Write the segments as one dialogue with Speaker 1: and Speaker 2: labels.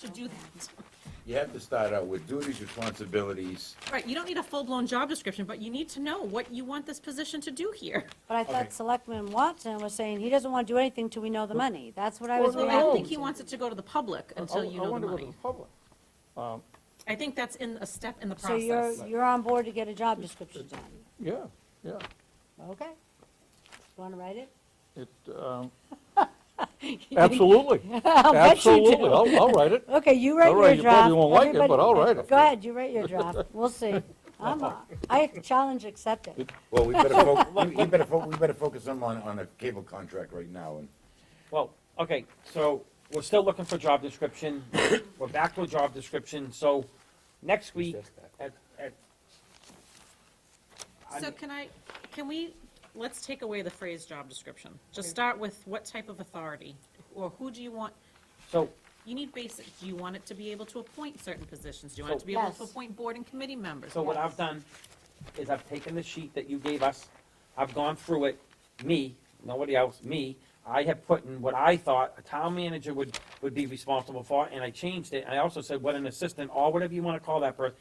Speaker 1: should do that.
Speaker 2: You have to start out with duties, responsibilities.
Speaker 1: Right, you don't need a full-blown job description, but you need to know what you want this position to do here.
Speaker 3: But I
Speaker 4: Okay.
Speaker 3: thought Selectman Watson was saying he doesn't want to do anything till we know the money. That's what I was
Speaker 1: Well, I don't think he
Speaker 3: reacting
Speaker 1: wants it to go to the public
Speaker 3: Oh,
Speaker 4: I-
Speaker 1: until you
Speaker 4: I
Speaker 1: know the
Speaker 4: wanna go to
Speaker 1: money.
Speaker 4: the public.
Speaker 1: I think that's in a step in the
Speaker 3: So you're,
Speaker 1: process.
Speaker 3: you're on board to get a job description done.
Speaker 4: Yeah, yeah.
Speaker 3: Okay. Want to write it?
Speaker 4: It, um, absolutely.
Speaker 3: I'll bet you do.
Speaker 4: Absolutely. I'll, I'll write it.
Speaker 3: Okay, you
Speaker 4: All
Speaker 3: write
Speaker 4: right,
Speaker 3: your
Speaker 4: you
Speaker 3: draft.
Speaker 4: probably won't like it,
Speaker 3: Everybody-
Speaker 4: but I'll write it.
Speaker 3: Go ahead, you write your draft. We'll see. I'm, a- I challenge accepted.
Speaker 2: Well, we better, fo- we- we better, fo- we better focus on, on on a cable contract right now, and
Speaker 5: Well, okay, so we're still looking for job description. We're back to a job description, so next week at, at. I
Speaker 1: So
Speaker 5: mean,
Speaker 1: can I, can we, let's take away the phrase job description. Just start with what type of authority, or who do you want,
Speaker 5: So,
Speaker 1: you need basic, do you want it to be able to appoint certain positions? Do you want it to be able to
Speaker 3: Yes.
Speaker 1: appoint board and committee members?
Speaker 5: so what I've done is I've taken the sheet that you gave us, I've gone through it, me, nobody else, me. I have put in what I thought a town manager would, would be responsible for, and I changed it. I also said what an assistant, or whatever you wanna call that person,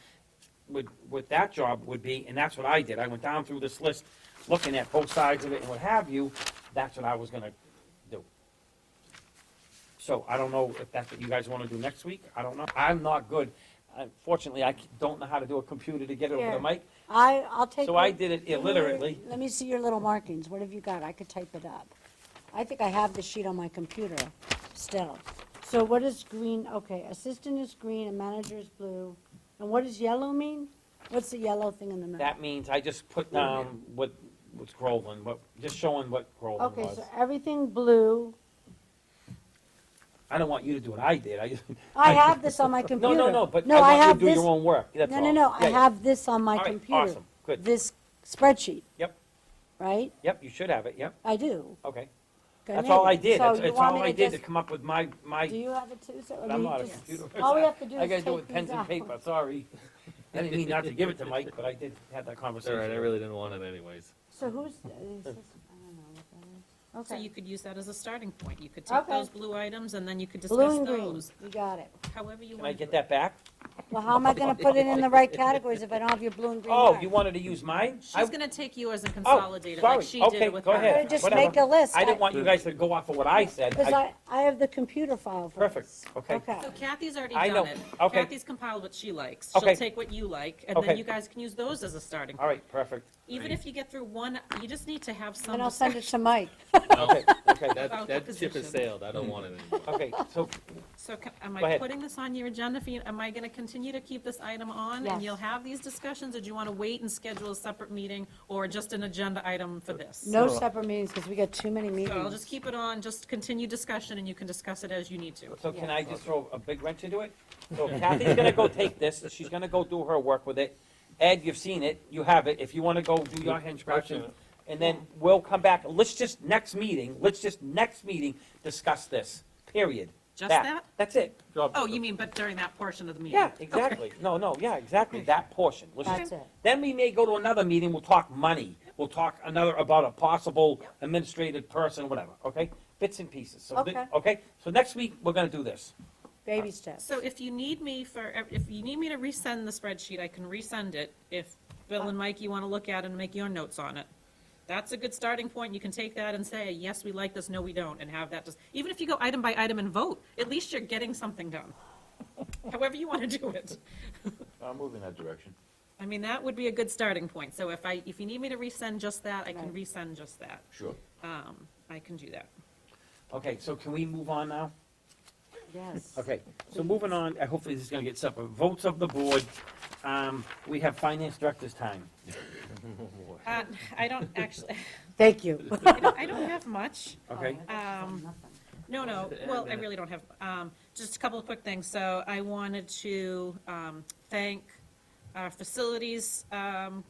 Speaker 5: would, what that job would be, and that's what I did. I went down through this list, looking at both sides of it and what have you, that's what I was gonna do. So I don't know if that's what you guys wanna do next week, I don't know. I'm not good, unfortunately, I c- don't know how to do a computer to get it over
Speaker 3: Here.
Speaker 5: the mic,
Speaker 3: I, I'll take.
Speaker 5: so I
Speaker 3: your-
Speaker 5: did it illiterately.
Speaker 3: Let me see your little markings. What have you got? I could type it up. I think I have the sheet on my computer still. So what is green? Okay, assistant is green and manager is blue. And what does yellow mean? What's the yellow thing in the middle?
Speaker 5: That means I just put down what, what's Groveland, what, just showing what Groveland
Speaker 3: Okay,
Speaker 5: was.
Speaker 3: so everything blue.
Speaker 5: I don't want you to do what I did, I just.
Speaker 3: I have this on my computer.
Speaker 5: No, no, no, but
Speaker 3: No, I
Speaker 5: I
Speaker 3: have
Speaker 5: want you to
Speaker 3: this.
Speaker 5: do your own work, that's
Speaker 3: No,
Speaker 5: all.
Speaker 3: no, no, I
Speaker 5: Yeah, yeah.
Speaker 3: have this on my
Speaker 5: All right,
Speaker 3: computer.
Speaker 5: awesome, good.
Speaker 3: This spreadsheet,
Speaker 5: Yep,
Speaker 3: right?
Speaker 5: yep, you should have it, yep,
Speaker 3: I do.
Speaker 5: okay.
Speaker 3: Go
Speaker 5: That's all I
Speaker 3: ahead.
Speaker 5: did,
Speaker 3: So
Speaker 5: that's,
Speaker 3: you
Speaker 5: that's
Speaker 3: want
Speaker 5: all
Speaker 3: me
Speaker 5: I
Speaker 3: to
Speaker 5: did to
Speaker 3: just-
Speaker 5: come up with my, my.
Speaker 3: Do you have it too, sir? Or do
Speaker 5: I'm
Speaker 3: you
Speaker 5: not a
Speaker 3: just-
Speaker 5: computer.
Speaker 3: All we have to do
Speaker 5: I
Speaker 3: is
Speaker 5: gotta do it
Speaker 3: take
Speaker 5: with pens
Speaker 3: these
Speaker 5: and
Speaker 3: out.
Speaker 5: paper, sorry. I didn't mean not to give it to Mike, but I did have that
Speaker 6: It's all
Speaker 5: conversation.
Speaker 6: right, I really didn't want it anyways.
Speaker 3: So who's, is this, I don't know what that is.
Speaker 1: So you
Speaker 3: Okay,
Speaker 1: could use that as a starting point. You could take
Speaker 3: Okay.
Speaker 1: those blue items and then you could discuss
Speaker 3: blue and green,
Speaker 1: those,
Speaker 3: you got it.
Speaker 1: however you
Speaker 5: Can I
Speaker 1: want.
Speaker 5: get that back?
Speaker 3: Well, how am I gonna put it in the right categories if I don't have your blue and green
Speaker 5: Oh,
Speaker 3: mark?
Speaker 5: you wanted to use mine? I- Oh,
Speaker 1: She's gonna take yours and consolidate it like
Speaker 5: sorry.
Speaker 1: she did
Speaker 5: Okay,
Speaker 1: it with
Speaker 5: go
Speaker 1: her.
Speaker 3: I'm
Speaker 5: ahead.
Speaker 3: gonna just
Speaker 5: whatever.
Speaker 3: make a list.
Speaker 5: I didn't want you guys to go off of what I said.
Speaker 3: Because
Speaker 5: I-
Speaker 3: I, I have the computer file for
Speaker 5: Perfect,
Speaker 3: this.
Speaker 5: okay.
Speaker 1: So Kathy's already
Speaker 5: I
Speaker 1: done
Speaker 5: know.
Speaker 1: it.
Speaker 5: Okay.
Speaker 1: Kathy's compiled what she likes. She'll
Speaker 5: Okay.
Speaker 1: take what you like, and then
Speaker 5: Okay.
Speaker 1: you guys can use those as a starting.
Speaker 5: All right, perfect.
Speaker 1: Even if you get through one, you just need to have some.
Speaker 3: And I'll send it
Speaker 1: discussion.
Speaker 3: to Mike.
Speaker 5: Okay, okay,
Speaker 1: About
Speaker 6: That,
Speaker 1: the
Speaker 6: that ship
Speaker 1: position.
Speaker 6: has sailed, I don't want it anymore.
Speaker 5: okay, so,
Speaker 1: So ca- am
Speaker 5: Go
Speaker 1: I
Speaker 5: ahead.
Speaker 1: putting this on your agenda for you? Am I gonna continue to keep this item on?
Speaker 3: Yes.
Speaker 1: And you'll have these discussions, or do you wanna wait and schedule a separate meeting, or just an agenda item for this?
Speaker 3: No separate meetings, because we got too many meetings.
Speaker 1: So I'll just keep it on, just continue discussion, and you can discuss it as you need to.
Speaker 5: so can I just throw a big wrench into it? So Kathy's gonna go take this, she's gonna go do her work with it. Ed, you've seen it, you have it, if you wanna go do your hinge
Speaker 6: Gotcha.
Speaker 5: scratching, and then we'll come back, let's just, next meeting, let's just, next meeting, discuss this, period.
Speaker 1: Just that?
Speaker 5: That's it.
Speaker 1: Oh, you mean, but during that portion of the meeting?
Speaker 5: Yeah, exactly. No, no, yeah, exactly, that portion. Let's just-
Speaker 3: That's it.
Speaker 5: Then we may go to another meeting, we'll talk money, we'll talk another, about a possible administrative person, whatever, okay? Bits and pieces, so, thi-
Speaker 3: Okay.
Speaker 5: okay? So next week, we're gonna do this.
Speaker 3: Baby steps.
Speaker 1: So if you need me for, if you need me to resend the spreadsheet, I can resend it. If Bill and Mike, you want to look at it and make your notes on it. That's a good starting point. You can take that and say, yes, we like this, no, we don't, and have that just, even if you go item by item and vote, at least you're getting something done. However you want to do it.
Speaker 2: I'll move in that direction.
Speaker 1: I mean, that would be a good starting point. So if I, if you need me to resend just that, I can
Speaker 3: Right.
Speaker 1: resend just that.
Speaker 2: Sure.
Speaker 1: Um, I can do that.
Speaker 5: Okay, so can we move on now?
Speaker 3: Yes.
Speaker 5: Okay, so moving on, uh, hopefully this is gonna get separate. Votes of the board, um, we have finance director's time.
Speaker 1: Uh, I don't actually,
Speaker 3: Thank you.
Speaker 1: I don't- I don't have much.
Speaker 5: Okay,
Speaker 1: Um, No, no,
Speaker 6: Yeah,
Speaker 1: well, I
Speaker 6: that-
Speaker 1: really don't have, um, just a couple of quick things. So I wanted to, um, thank our facilities, um,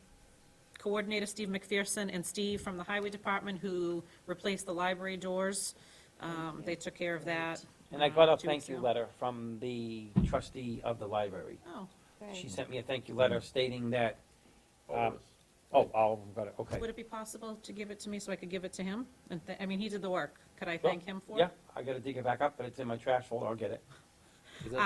Speaker 1: coordinator, Steve McPherson, and Steve from the highway department who replaced the library doors. Um, they took care of that.
Speaker 5: and I
Speaker 1: um,
Speaker 5: got a
Speaker 1: two weeks
Speaker 5: thank you
Speaker 1: ago.
Speaker 5: letter from the trustee of the library.
Speaker 1: Oh,
Speaker 5: She sent me a thank you letter stating that, um,
Speaker 2: Always.
Speaker 5: oh, I'll, got it, okay.
Speaker 1: would it be possible to give it to me so I could give it to him? And, th- I mean, he did the work. Could I thank him for it?
Speaker 5: Yeah, I gotta dig it back up, but it's in my trash folder, I'll get it.
Speaker 6: Is that